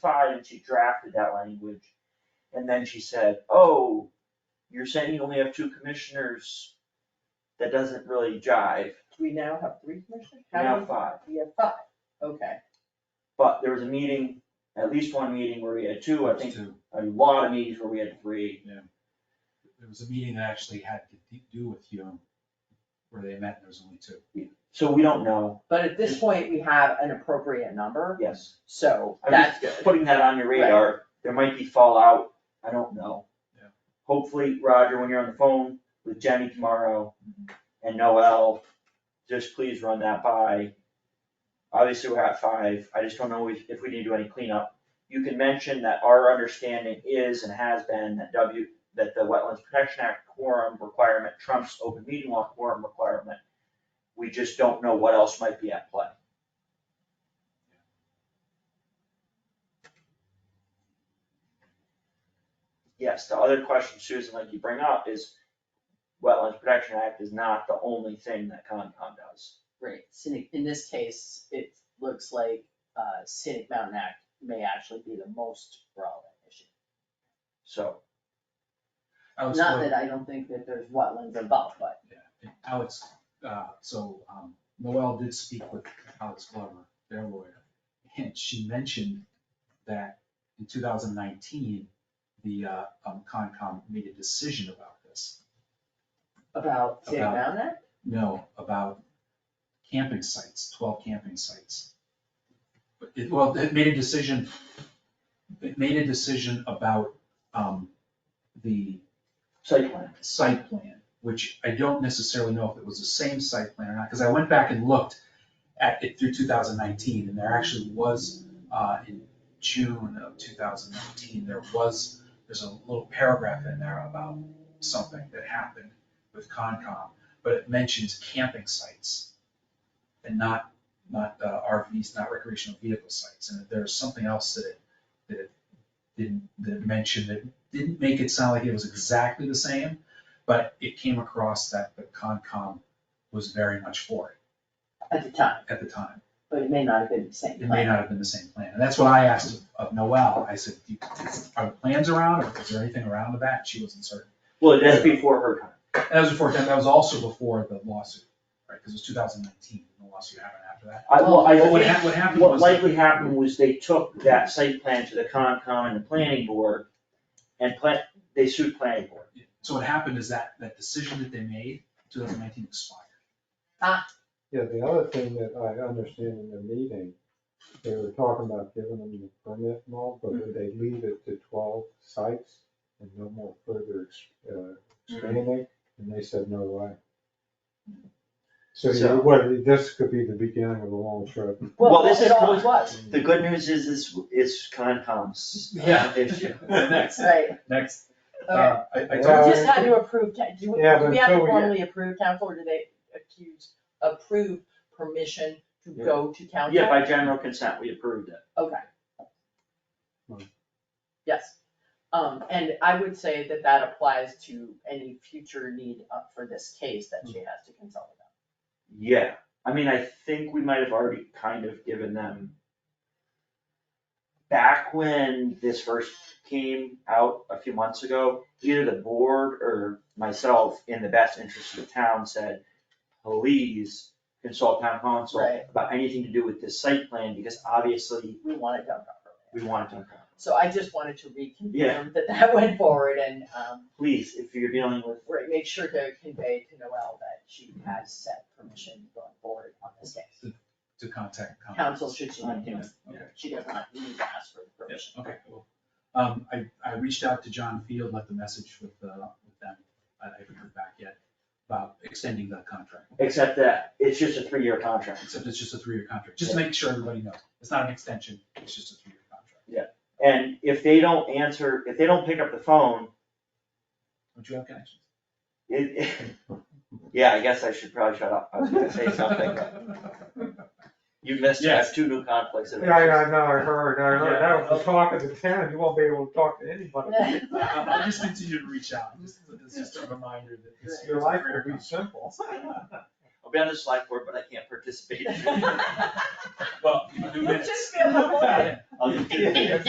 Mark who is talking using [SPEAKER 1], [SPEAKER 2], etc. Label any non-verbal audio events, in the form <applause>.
[SPEAKER 1] side and she drafted that language. And then she said, oh, you're saying you only have two commissioners, that doesn't really jive,
[SPEAKER 2] We now have three commissioners?
[SPEAKER 1] we
[SPEAKER 2] How
[SPEAKER 1] have
[SPEAKER 2] many?
[SPEAKER 1] five.
[SPEAKER 2] We have five, okay.
[SPEAKER 1] But there was a meeting, at least one meeting where we had two, I
[SPEAKER 3] There's
[SPEAKER 1] think
[SPEAKER 3] two.
[SPEAKER 1] a lot of meetings where we had three.
[SPEAKER 3] There was a meeting that actually had to d- do with Hume, where they met, and there was only two.
[SPEAKER 1] So we don't know,
[SPEAKER 2] But at this point, we have an appropriate number,
[SPEAKER 1] yes.
[SPEAKER 2] so
[SPEAKER 1] I'm
[SPEAKER 2] that's
[SPEAKER 1] just
[SPEAKER 2] good.
[SPEAKER 1] putting that on your radar, there might be fallout, I don't know.
[SPEAKER 3] Yeah.
[SPEAKER 1] Hopefully, Roger, when you're on the phone with Jenny tomorrow
[SPEAKER 2] Mm-hmm.
[SPEAKER 1] and Noel, just please run that by. Obviously, we're at five, I just don't know if, if we need to do any cleanup. You can mention that our understanding is and has been that W, that the Wetlands Protection Act quorum requirement trumps open meeting law quorum requirement. We just don't know what else might be at play. yes, the other question, Susan, like you bring up is Wetlands Protection Act is not the only thing that Concom does.
[SPEAKER 2] Right, scenic, in this case, it looks like uh scenic mountain act may actually be the most relevant issue.
[SPEAKER 1] So,
[SPEAKER 3] Alex
[SPEAKER 2] Not
[SPEAKER 3] Wood-
[SPEAKER 2] that I don't think that there's wetlands involved, but
[SPEAKER 3] yeah, and Alex, uh, so, um, Noel did speak with Alex Glover, their lawyer, and she mentioned that in two thousand nineteen, the, uh, um, Concom made a decision about this.
[SPEAKER 2] about scenic
[SPEAKER 3] About-
[SPEAKER 2] mountain act,
[SPEAKER 3] No, about camping sites, twelve camping sites. But it, well, it made a decision, it made a decision about, um, the
[SPEAKER 1] site plan,
[SPEAKER 3] site plan, which I don't necessarily know if it was the same site plan or not, because I went back and looked at it through two thousand nineteen, and there actually was, uh, in June of two thousand nineteen, there was, there's a little paragraph in there about something that happened with Concom, but it mentions camping sites and not, not uh, RVs, not recreational vehicle sites, and there's something else that it, that it didn't, that it mentioned that didn't make it sound like it was exactly the same, but it came across that the Concom was very much for it
[SPEAKER 2] at the time,
[SPEAKER 3] at the time.
[SPEAKER 2] but it may not have been the same
[SPEAKER 3] It may
[SPEAKER 2] plan.
[SPEAKER 3] not have been the same plan, and that's what I asked of- of Noel, I said, "Do you- are the plans around, or is there anything around with that? She wasn't certain.
[SPEAKER 1] well, that's before her time.
[SPEAKER 3] And that was before, that was also before the lawsuit, right, because it was two thousand nineteen, the lawsuit happened after that.
[SPEAKER 1] I, well, I
[SPEAKER 3] But what
[SPEAKER 1] think
[SPEAKER 3] hap- what happened
[SPEAKER 1] what
[SPEAKER 3] was,
[SPEAKER 1] likely happened was they took that site plan to the Concom and the planning board and plan, they sued planning board.
[SPEAKER 3] so what happened is that, that decision that they made, two thousand nineteen expired.
[SPEAKER 4] Yeah, the other thing that I understand in the meeting, they were talking about giving them the permit and all, but would they leave it to twelve sites and no more further ex- uh, expanding? And they said, no way. So
[SPEAKER 1] So-
[SPEAKER 4] you, what, this could be the beginning of a long trip.
[SPEAKER 1] Well, this
[SPEAKER 2] it
[SPEAKER 1] is-
[SPEAKER 2] always was,
[SPEAKER 1] The good news is, is, is Concom's uh,
[SPEAKER 3] Yeah.
[SPEAKER 1] issue.
[SPEAKER 3] <laughs>
[SPEAKER 2] <laughs>
[SPEAKER 3] Next,
[SPEAKER 2] right,
[SPEAKER 3] next,
[SPEAKER 2] okay.
[SPEAKER 3] uh, I, I
[SPEAKER 2] We
[SPEAKER 3] talked-
[SPEAKER 4] Yeah.
[SPEAKER 2] just had to approve, ta- do, we-
[SPEAKER 4] Yeah,
[SPEAKER 2] do
[SPEAKER 4] but
[SPEAKER 2] we have to
[SPEAKER 4] until we get-
[SPEAKER 2] formally approve council, or do they accuse, approve permission to
[SPEAKER 1] Yeah.
[SPEAKER 2] go to council?
[SPEAKER 1] Yeah, by general consent, we approved it.
[SPEAKER 2] Okay.
[SPEAKER 4] Hmm.
[SPEAKER 2] Yes, um, and I would say that that applies to any future need up for this case that
[SPEAKER 4] Hmm.
[SPEAKER 2] she has to consult about.
[SPEAKER 1] Yeah, I mean, I think we might have already kind of given them. Back when this first came out a few months ago, either the board or myself, in the best interest of the town, said, please consult town council
[SPEAKER 2] Right.
[SPEAKER 1] about anything to do with this site plan, because obviously
[SPEAKER 2] We want it done properly.
[SPEAKER 1] we want it done properly.
[SPEAKER 2] So I just wanted to
[SPEAKER 1] Yeah.
[SPEAKER 2] reconfirm that <laughs> that went forward and, um,
[SPEAKER 1] Please, if you're dealing with,
[SPEAKER 2] right, make sure to convey to Noel that she has set permission going forward on this case.
[SPEAKER 3] to contact. Concom.
[SPEAKER 2] Council should she not do it,
[SPEAKER 3] Okay.
[SPEAKER 2] she does not need to ask for permission.
[SPEAKER 3] Yes, okay, cool. Um, I, I reached out to John Field, left a message with, uh, with them, I I haven't heard back yet, about extending the contract.
[SPEAKER 1] except that it's just a three-year contract.
[SPEAKER 3] Except it's just a three-year contract, just to make sure everybody knows, it's not an extension, it's just a three-year contract.
[SPEAKER 1] And if they don't answer, if they don't pick up the phone,
[SPEAKER 3] Don't you have connections?
[SPEAKER 1] It, <laughs> yeah, I guess I should probably shut up. I was gonna <laughs> say something. but You missed, I have
[SPEAKER 3] Yes.
[SPEAKER 1] two new conflicts of
[SPEAKER 4] Yeah, I
[SPEAKER 1] interest.
[SPEAKER 4] know, I heard, I heard, that was the talk of the town, you won't be able to talk to anybody.
[SPEAKER 2] <laughs>
[SPEAKER 3] <laughs> I'll I'll Um, just continue to reach out, just, it's just a reminder that it's.
[SPEAKER 4] Your life will be simple.
[SPEAKER 1] I'll be on the select board, but I can't participate. <laughs>
[SPEAKER 3] Well, you can do
[SPEAKER 2] We'll
[SPEAKER 3] minutes. <laughs>
[SPEAKER 2] just be able to look at it.
[SPEAKER 1] <laughs> I'll just do it.